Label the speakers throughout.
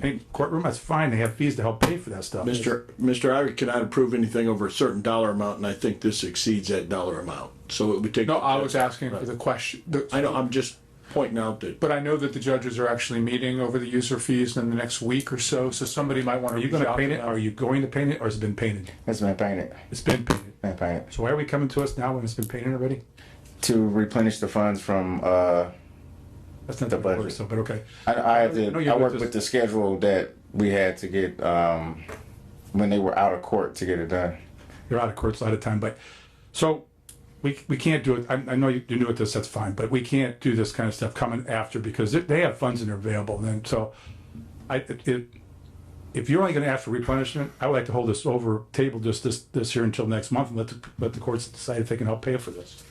Speaker 1: paint courtroom, that's fine. They have fees to help pay for that stuff.
Speaker 2: Mr. Mr. Ira cannot approve anything over a certain dollar amount, and I think this exceeds that dollar amount, so it would take.
Speaker 3: No, I was asking for the question, the-
Speaker 2: I know, I'm just pointing out that,
Speaker 3: but I know that the judges are actually meeting over the user fees in the next week or so, so somebody might want to
Speaker 1: Are you
Speaker 3: reach
Speaker 1: gonna
Speaker 3: out to
Speaker 1: paint it? Are
Speaker 3: them.
Speaker 1: you going to paint it or has it been painted?
Speaker 4: It's been painted.
Speaker 1: It's been painted.
Speaker 4: Been painted.
Speaker 1: So why are we coming to us now when it's been painted already?
Speaker 4: To replenish the funds from, uh,
Speaker 1: That's not the
Speaker 4: budget.
Speaker 1: word, so, but okay.
Speaker 4: I, I had
Speaker 1: No,
Speaker 4: to,
Speaker 1: you
Speaker 4: I worked
Speaker 1: just-
Speaker 4: with the schedule that we had to get, um, when they were out of court to get it done.
Speaker 1: You're out of court, it's out of time, but, so, we, we can't do it. I, I know you- you're new at this, that's fine, but we can't do this kind of stuff coming after because they- they have funds and they're available then, so. I, it, it- if you're only gonna ask for replenishment, I would like to hold this over table just this, this here until next month and let, the- let the courts decide if they can help pay for this.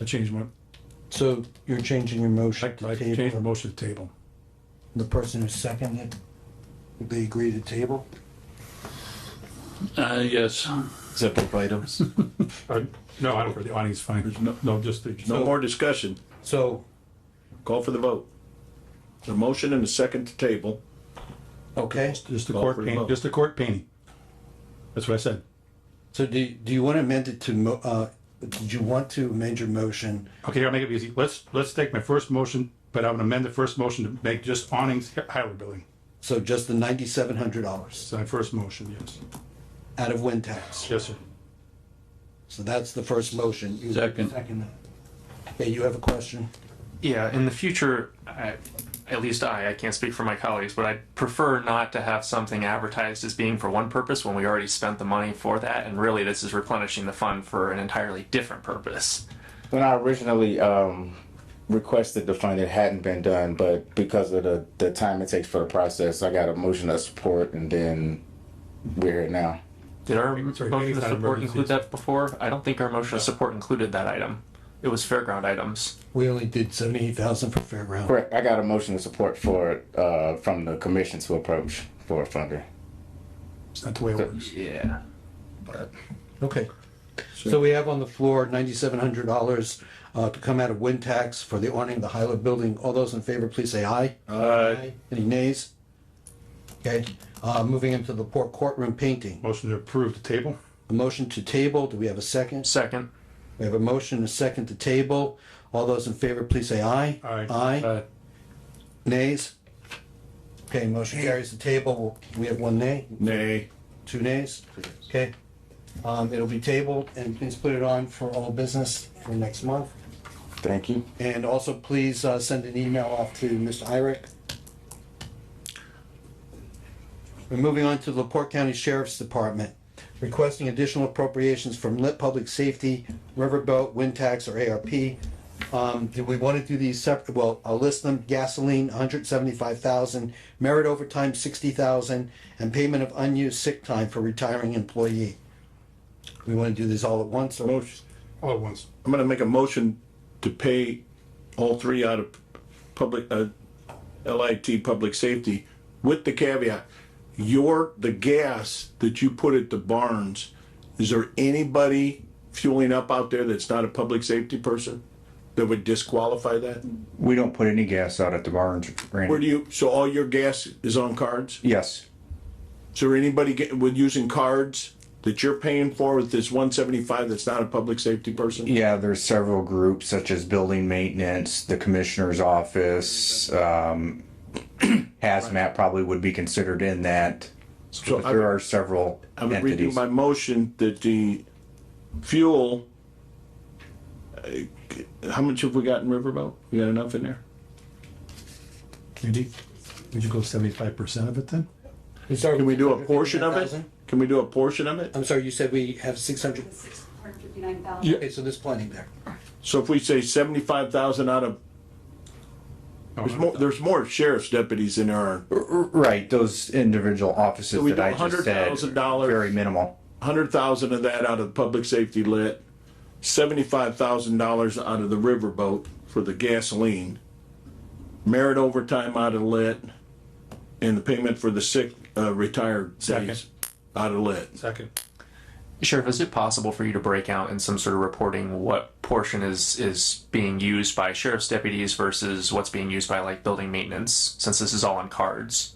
Speaker 1: I change my,
Speaker 5: So you're changing your motion
Speaker 1: I
Speaker 5: to
Speaker 1: change my
Speaker 5: table.
Speaker 1: motion to table.
Speaker 5: The person who seconded, they agree to table?
Speaker 6: Uh, yes.
Speaker 7: Separate items.
Speaker 1: Uh, no, I don't, the audience fine. No, no, just. the-
Speaker 2: no more discussion,
Speaker 5: So,
Speaker 2: call for the vote. The motion and the second to table,
Speaker 5: okay,
Speaker 1: Just the
Speaker 2: Call
Speaker 1: court
Speaker 2: for the
Speaker 1: painting,
Speaker 2: vote.
Speaker 1: just the court painting. That's what I said.
Speaker 5: so do, do you want to amend it to, mo- uh, did you want to amend your motion?
Speaker 1: Okay, I'll make it easy. Let's, let's take my first motion, but I would amend the first motion to make just awnings Hyler Building.
Speaker 5: So just the ninety-seven hundred dollars
Speaker 1: It's my first motion, yes.
Speaker 5: out of wind tax?
Speaker 1: Yes, sir.
Speaker 5: So that's the first motion. You
Speaker 6: Second.
Speaker 5: Second. Okay, you have a question?
Speaker 8: Yeah, in the future, I, at least I, I can't speak for my colleagues, but I prefer not to have something advertised as being for one purpose when we already spent the money for that, and really this is replenishing the fund for an entirely different purpose.
Speaker 4: When I originally, um, requested the fund, it hadn't been done, but because of the, the time it takes for the process, I got a motion of support and then we're here now.
Speaker 8: Did our
Speaker 1: Sorry,
Speaker 8: motion of
Speaker 1: anytime
Speaker 8: support
Speaker 1: emergencies.
Speaker 8: include that before? I don't think our motion of support included that item. It was fairground items.
Speaker 5: We only did seventy-eight thousand for fairground.
Speaker 4: Correct, I got a motion of support for, uh, from the commission to approach for a funder.
Speaker 1: It's not the way it works.
Speaker 8: Yeah.
Speaker 5: Okay. So we have on the floor ninety-seven hundred dollars uh, to come out of wind tax for the awning of the Hyla building. All those in favor, please say aye. Aye. Any nays? Okay, uh, moving into the poor courtroom painting.
Speaker 1: Motion to approve the table.
Speaker 5: A motion to table, do we have a second?
Speaker 8: Second.
Speaker 5: We have a motion, a second to table. All those in favor, please say aye.
Speaker 1: Aye.
Speaker 5: Aye.
Speaker 1: Uh,
Speaker 5: Nays? Okay, motion carries the table. We have one nay.
Speaker 2: nay.
Speaker 5: Two nays? Okay. Um, it'll be tabled and please put it on for all business for next month.
Speaker 4: Thank you.
Speaker 5: And also please, uh, send an email off to Mr. Irick. We're moving on to the Port County Sheriff's Department, requesting additional appropriations from Lit Public Safety, Riverboat, Wind Tax, or ARP. Um, do we want to do these separate? Well, I'll list them. Gasoline, hundred seventy-five thousand, merit overtime, sixty thousand, and payment of unused sick time for retiring employee. We want to do this all at once or?
Speaker 2: Motion,
Speaker 1: All at once.
Speaker 2: I'm gonna make a motion to pay all three out of public, uh, LIT public safety with the caveat, your, the gas that you put at the barns, is there anybody fueling up out there that's not a public safety person that would disqualify that?
Speaker 9: We don't put any gas out at the barns,
Speaker 2: Where do
Speaker 9: Randy.
Speaker 2: you, so all your gas is on cards?
Speaker 9: Yes,
Speaker 2: Is there anybody get, with using cards that you're paying for with this one seventy-five that's not a public safety person?
Speaker 9: yeah, there's several groups such as building maintenance, the commissioner's office, um, hazmat probably would be considered in that.
Speaker 2: So
Speaker 9: But
Speaker 2: I-
Speaker 9: there are several
Speaker 2: I'm reading
Speaker 9: entities.
Speaker 2: my motion that the fuel, uh, how much have we got in Riverboat? We got enough in there?
Speaker 1: Andy, would you go seventy-five percent of it then?
Speaker 2: Can we do a portion of it? Can we do a portion of it?
Speaker 5: I'm sorry, you said we have six hundred,
Speaker 10: Six hundred fifty-nine thousand.
Speaker 5: okay, so there's plenty there.
Speaker 2: So if we say seventy-five thousand out of, there's more, there's more sheriff's deputies in our,
Speaker 9: Right, those individual offices
Speaker 2: we
Speaker 9: that
Speaker 2: do
Speaker 9: I just said,
Speaker 2: $100,000
Speaker 9: very minimal.
Speaker 2: hundred thousand of that out of public safety lit, seventy-five thousand dollars out of the Riverboat for the gasoline, merit overtime out of lit, and the payment for the sick, uh, retired days out of lit.
Speaker 1: Second.
Speaker 8: Sheriff, is it possible for you to break out in some sort of reporting what portion is is being used by sheriff's deputies versus what's being used by like building maintenance, since this is all on cards?